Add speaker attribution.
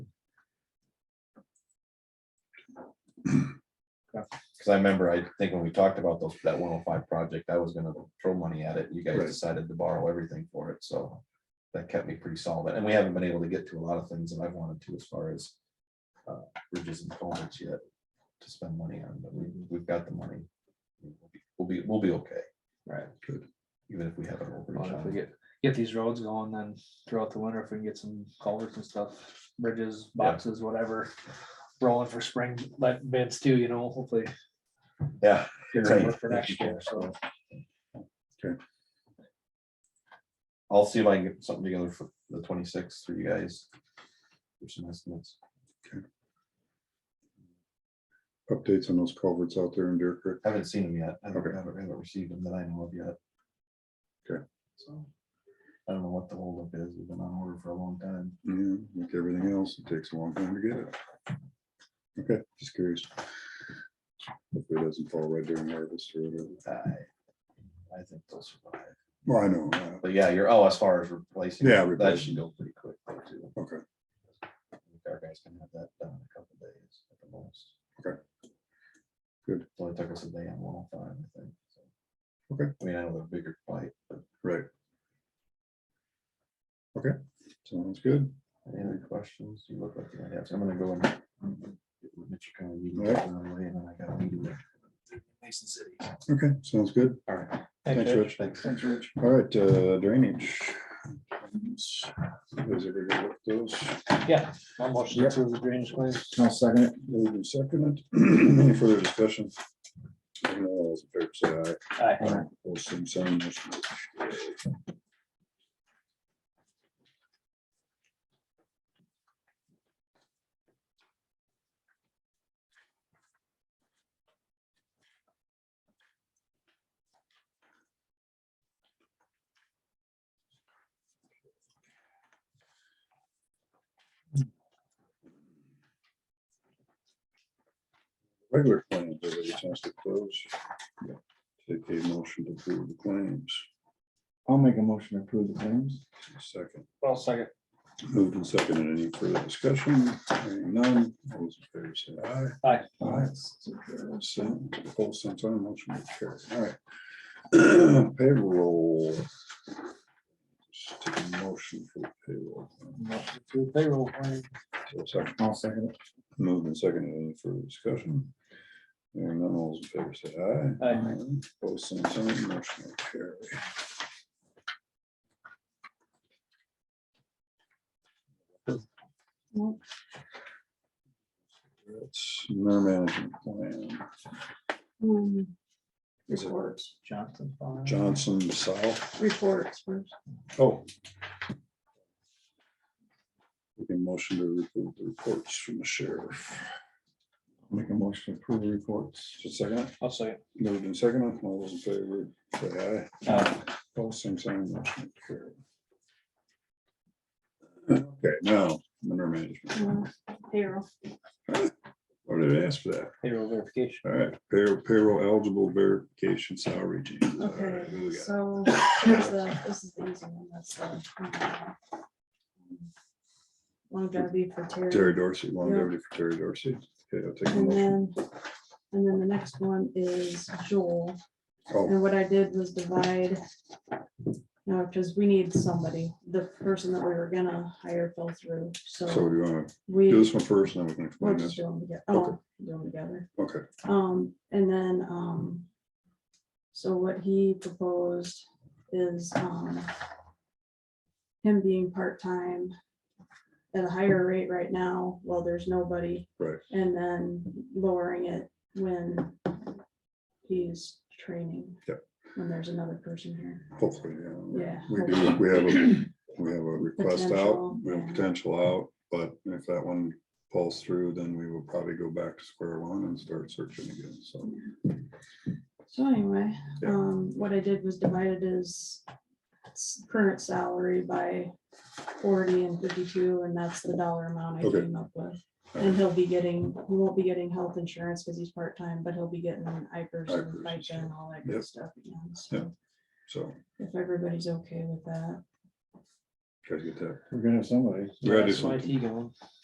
Speaker 1: Cause I remember, I think when we talked about those, that one oh five project, I was gonna throw money at it. You guys
Speaker 2: Right.
Speaker 1: decided to borrow everything for it, so. That kept me pretty solid, and we haven't been able to get to a lot of things that I wanted to as far as. uh, Bridges and culverts yet to spend money on, but we, we've got the money. We'll be, we'll be okay,
Speaker 3: Right,
Speaker 1: even if we have an
Speaker 3: Well,
Speaker 1: overage.
Speaker 3: if
Speaker 1: on
Speaker 3: we
Speaker 1: it.
Speaker 3: get, get these roads going, then throughout the winter, if we can get some culverts and stuff, bridges, boxes, whatever. Rolling for spring, let bids too, you know, hopefully.
Speaker 1: Yeah.
Speaker 3: get
Speaker 1: Right.
Speaker 3: some work For next year, so,
Speaker 1: I'll see if I can get something together for the twenty-sixth for you guys. For some estimates.
Speaker 2: updates on those culverts out there in Deer Creek.
Speaker 1: Haven't seen them yet. I haven't,
Speaker 2: Okay.
Speaker 1: haven't haven't received them that I know of yet.
Speaker 2: Okay.
Speaker 1: So. I don't know what the holdup is. We've been on order for a long time.
Speaker 2: Yeah, like everything else, it takes a long time to get it. Okay, just curious. Hopefully it doesn't fall right during harvest or whatever.
Speaker 1: I, I think they'll survive.
Speaker 2: Well, I know, uh,
Speaker 1: But yeah, you're, oh, as far as replacing.
Speaker 2: Yeah,
Speaker 1: That should
Speaker 2: replacing.
Speaker 1: go pretty quick though, too.
Speaker 2: okay,
Speaker 1: I think Our guys can have that done in a couple days at the most.
Speaker 2: Okay. Good.
Speaker 1: So it took us a day and one time, I think. so.
Speaker 2: Okay.
Speaker 1: I mean, I know they're bigger pipe, but
Speaker 2: right. Okay, sounds good.
Speaker 1: Any other questions? You look like you might have. some. I'm gonna go and. get with Mitch Curran, you can
Speaker 2: All right.
Speaker 1: get on the way, and then I got a meeting with Mason City.
Speaker 2: Okay, sounds good.
Speaker 1: All right.
Speaker 2: Thanks, Rich.
Speaker 1: Thanks.
Speaker 2: Thanks, Rich. All right, uh, drainage. You guys ever go with Those.
Speaker 3: yeah, I'll motion to approve the drainage claims.
Speaker 2: I'll second it. Moved and seconded. Any further discussion? Hearing none, All those in favor say
Speaker 3: Aye.
Speaker 2: aye. Aye. All same sign, motion carries. Regular claims, everybody has to close. Take a motion to approve the claims.
Speaker 4: I'll make a motion to approve the claims.
Speaker 2: Second,
Speaker 3: Well, second,
Speaker 2: moved and seconded. Any further discussion? Hearing none, all those in favor say aye.
Speaker 3: aye,
Speaker 2: Aye. So, Both same sign, motion will carry. All right. Payroll. Just Take a motion for payroll.
Speaker 3: motion to approve payroll claim,
Speaker 2: Second,
Speaker 4: I'll second it.
Speaker 2: moved and seconded. Any further discussion? Hearing none, all those in favor say aye.
Speaker 3: aye,
Speaker 2: Both same sign, motion will carry. That's their management plan.
Speaker 5: Um,
Speaker 2: Is it
Speaker 5: Reports,
Speaker 3: Johnson. fine.
Speaker 2: Johnson South?
Speaker 5: reports first.
Speaker 2: Oh. We can motion to approve the reports from the sheriff.
Speaker 4: Make a motion to approve the reports.
Speaker 2: Just a second,
Speaker 3: I'll second,
Speaker 2: moved in second, all those in favor, say aye.
Speaker 3: Aye.
Speaker 2: All same sign, motion carried. Okay, now, under management,
Speaker 5: uh, Payroll.
Speaker 2: what did I ask for that?
Speaker 3: payroll verification,
Speaker 2: All right, payroll, payroll eligible verification salary changes.
Speaker 5: Uh,
Speaker 2: All right, who we
Speaker 5: Okay,
Speaker 2: got?
Speaker 5: so here's the, this is the easy one, that's the. hmm. um, Longevity for Terry.
Speaker 2: Terry Dorsey, longevity for Terry Dorsey. Okay, I'll take a
Speaker 5: And
Speaker 2: motion.
Speaker 5: then, and then the next one is Joel.
Speaker 2: Oh,
Speaker 5: And what I did was divide. No, because we need somebody, the person that we were gonna hire fell through,
Speaker 2: Oh, so
Speaker 5: so
Speaker 2: you want to do
Speaker 5: we.
Speaker 2: this one first, and then we can
Speaker 5: We'll
Speaker 2: explain this.
Speaker 5: just do them together.
Speaker 2: Okay.
Speaker 5: Oh, do them together.
Speaker 2: Okay,
Speaker 5: Um, and then, um, so what he proposed is, um, him being part-time at a higher rate right now, while there's nobody.
Speaker 2: Right.
Speaker 5: And then lowering it when he's training.
Speaker 2: Yep.
Speaker 5: When there's another person here.
Speaker 2: hopefully, yeah. we-
Speaker 5: Yeah.
Speaker 2: We do, we have a, we have a request out,
Speaker 5: Potential,
Speaker 2: we have
Speaker 5: yeah.
Speaker 2: potential out, but if that one falls through, then we will probably go back to square one and start searching again, so.
Speaker 5: So anyway,
Speaker 2: Yeah.
Speaker 5: um, what I did was divided his s- current salary by forty and fifty-two, and that's the dollar amount I
Speaker 2: Okay.
Speaker 5: came up with.
Speaker 2: all
Speaker 5: And
Speaker 2: right,
Speaker 5: he'll be getting, he won't be getting health insurance because he's part-time, but he'll be getting IPers and
Speaker 2: IPers,
Speaker 5: FICA and all that
Speaker 2: Yep.
Speaker 5: good stuff. again. So
Speaker 2: So,
Speaker 5: if everybody's okay with that,
Speaker 2: gotta get that,
Speaker 4: We're gonna have somebody.
Speaker 2: we gotta do
Speaker 3: Some
Speaker 2: something,
Speaker 3: IT going,